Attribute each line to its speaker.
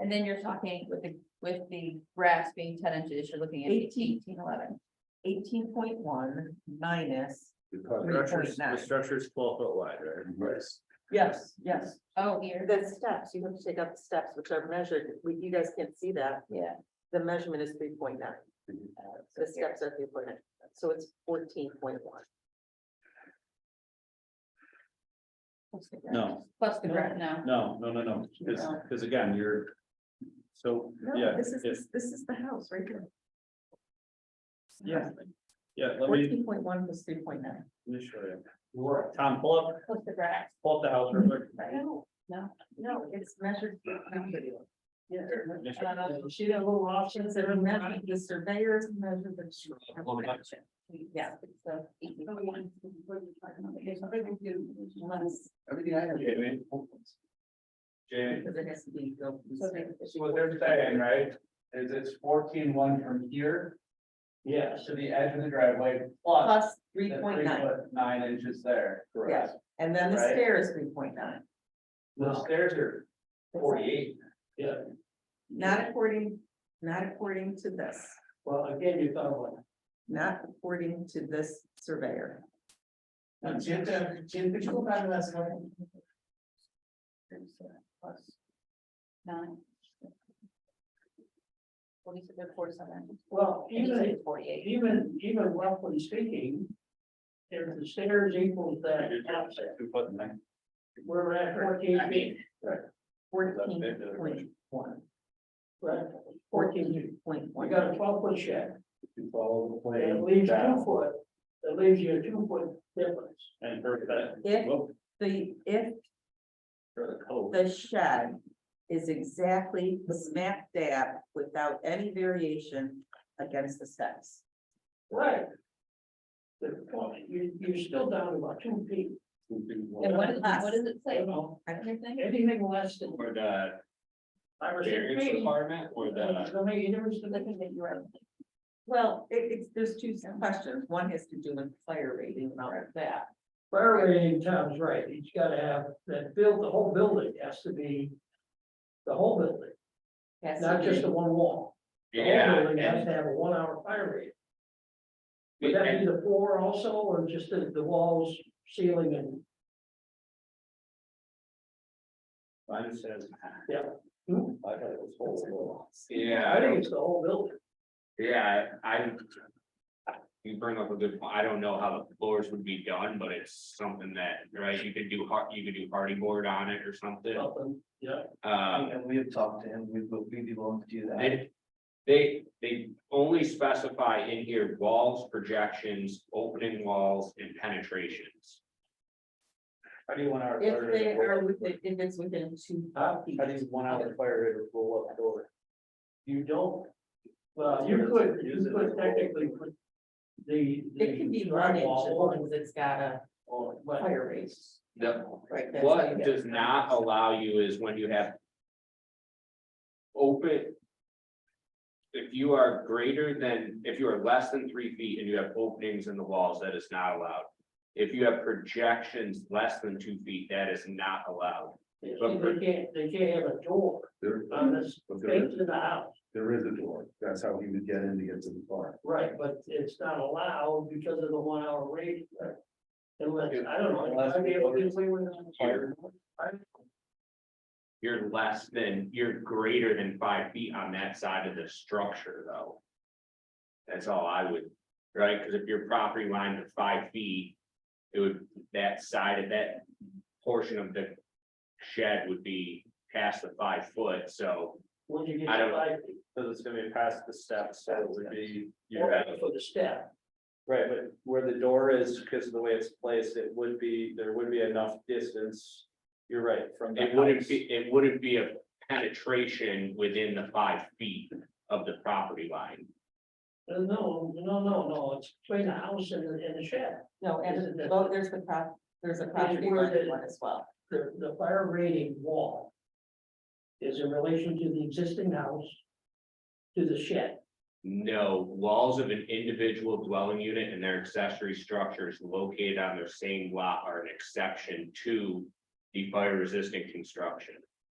Speaker 1: And then you're talking with the, with the grass being ten inches, you're looking at
Speaker 2: Eighteen.
Speaker 1: eighteen, eleven.
Speaker 2: Eighteen point one minus,
Speaker 3: The structure's, the
Speaker 2: 3.9.
Speaker 3: structure's twelve foot wide, right?
Speaker 2: yes, yes.
Speaker 1: Oh, here,
Speaker 4: The steps, you have to take out the steps, which are measured, we- you guys can't see that,
Speaker 1: yeah.
Speaker 4: the measurement is three point nine,
Speaker 3: Mm-hmm.
Speaker 1: uh, so
Speaker 4: the
Speaker 1: here.
Speaker 4: steps are three point nine, so it's fourteen point one.
Speaker 1: Plus the grass.
Speaker 3: No,
Speaker 1: Plus the grass, no.
Speaker 3: no, no, no, no, because, because again, you're, so, yeah,
Speaker 2: This is,
Speaker 3: it-
Speaker 2: this is the house right here.
Speaker 3: yeah, yeah, let me,
Speaker 2: Fourteen point one was three point nine.
Speaker 3: let me show you. Tom, pull up,
Speaker 1: Plus the grass,
Speaker 3: pull up the house real quick.
Speaker 1: right? No.
Speaker 2: No, it's measured. Yeah.
Speaker 3: Yes,
Speaker 2: Uh, She had a little options that are measured, the surveyors measured the.
Speaker 3: Well, that's-
Speaker 2: Yeah.
Speaker 1: So.
Speaker 5: Oh,
Speaker 1: 18.1.
Speaker 6: Everything I have.
Speaker 3: Jamie. Jamie,
Speaker 2: Because it has to be. go-
Speaker 1: So they-
Speaker 6: So what they're saying, right, is it's fourteen one from here. Yeah. To the edge of the driveway plus.
Speaker 2: Plus three
Speaker 6: the
Speaker 2: point nine,
Speaker 6: 3.9 inches there.
Speaker 2: yeah, and then the
Speaker 6: Right.
Speaker 2: stair is three point nine,
Speaker 6: The stairs are forty-eight. Yeah.
Speaker 2: not according, not according to this,
Speaker 6: Well, again, you thought one.
Speaker 2: not according to this surveyor.
Speaker 6: Jim,
Speaker 5: uh,
Speaker 6: Jim, could you go back to that slide?
Speaker 1: Plus Nine. What do you said, forty-seven?
Speaker 5: Well, even,
Speaker 1: Forty-eight.
Speaker 5: even, even roughly speaking, if the stairs equals that offset,
Speaker 3: Two foot nine.
Speaker 5: we're at fourteen feet,
Speaker 2: Fourteen point one.
Speaker 5: right? Fourteen,
Speaker 2: Point
Speaker 5: we
Speaker 2: one.
Speaker 5: got a twelve foot shed,
Speaker 3: You follow the
Speaker 5: that
Speaker 3: plan.
Speaker 5: leaves
Speaker 3: down
Speaker 5: two foot, that leaves you a two foot difference.
Speaker 3: And for that.
Speaker 2: If-
Speaker 3: well,
Speaker 2: The, if
Speaker 3: For the code.
Speaker 2: the shed is exactly smack dab without any variation against the steps.
Speaker 5: Right. The point, you, you're still down about two feet,
Speaker 1: And what is, what does it say?
Speaker 5: you know,
Speaker 1: Everything?
Speaker 5: anything less than
Speaker 3: Or the
Speaker 5: five or six
Speaker 3: variance
Speaker 5: feet.
Speaker 3: requirement or the.
Speaker 5: I mean, there was
Speaker 1: Looking that you are.
Speaker 2: Well, it, it's, there's two questions, one has to do with fire rating and all of that.
Speaker 5: Fire rating, Tom's right, he's gotta have, that build, the whole building has to be. The whole building,
Speaker 2: Has to
Speaker 5: not
Speaker 2: be-
Speaker 5: just the one wall. The whole
Speaker 3: Yeah,
Speaker 5: building Has
Speaker 3: and-
Speaker 5: to have a one hour fire rating. Would that be
Speaker 3: and
Speaker 5: the floor also, or just the, the walls, ceiling and?
Speaker 3: mine says-
Speaker 5: Yeah.
Speaker 3: I thought it was whole. Yeah.
Speaker 5: hmm? I think it's the whole building.
Speaker 7: Yeah, I. You bring up a good point. I don't know how the floors would be done, but it's something that, right, you could do hard, you could do hardy board on it or something.
Speaker 5: Something, Yeah.
Speaker 7: Um,
Speaker 6: And we have talked to him, we would be willing to do that.
Speaker 7: they, they, they only specify in here walls, projections, opening walls and penetrations.
Speaker 6: How do you want our?
Speaker 2: If they are within, if it's within two
Speaker 6: How
Speaker 2: feet.
Speaker 6: how does one hour fire rate roll up door?
Speaker 5: You don't, well, you could, you could technically put the.
Speaker 2: It can be one inch as long as it's got a
Speaker 5: Or, but,
Speaker 2: fire rate.
Speaker 7: The,
Speaker 2: Right. that's how you
Speaker 7: what
Speaker 2: get-
Speaker 7: does not allow you is when you have. Open. If you are greater than, if you are less than three feet and you have openings in the walls, that is not allowed. If you have projections less than two feet, that is not allowed.
Speaker 5: they can't, they can't have a door
Speaker 8: There,
Speaker 5: on this
Speaker 8: but there
Speaker 5: face
Speaker 8: is,
Speaker 5: of the house.
Speaker 8: there is a door. That's how he would get in to get to the car.
Speaker 5: Right, but it's not allowed because of the one hour rating. right? Unless, I don't know.
Speaker 6: Unless
Speaker 5: I'd be able to
Speaker 6: we-
Speaker 5: do something with that.
Speaker 7: You're- You're less than, you're greater than five feet on that side of the structure, though. That's all I would, right, because if your property line is five feet, it would, that side of that portion of the shed would be past the five foot, so.
Speaker 5: When you get
Speaker 7: I
Speaker 5: to
Speaker 7: don't-
Speaker 5: five,
Speaker 3: So it's gonna be past the steps, so it would be,
Speaker 5: you're
Speaker 3: you're at,
Speaker 5: for the step.
Speaker 3: right, but where the door is, because of the way it's placed, it would be, there would be enough distance. You're right, from. the
Speaker 7: It wouldn't
Speaker 3: house.
Speaker 7: be, it wouldn't be a penetration within the five feet of the property line.
Speaker 5: No, Uh, no, no, no, it's between the house and the, and the shed.
Speaker 2: No, and the- well, there's the prop, there's a property
Speaker 5: where
Speaker 2: line
Speaker 5: the-
Speaker 2: one as well.
Speaker 5: The, the fire rating wall is in relation to the existing house to the shed.
Speaker 7: No, walls of an individual dwelling unit and their accessory structures located on their same lot are an exception to the fire resistant construction.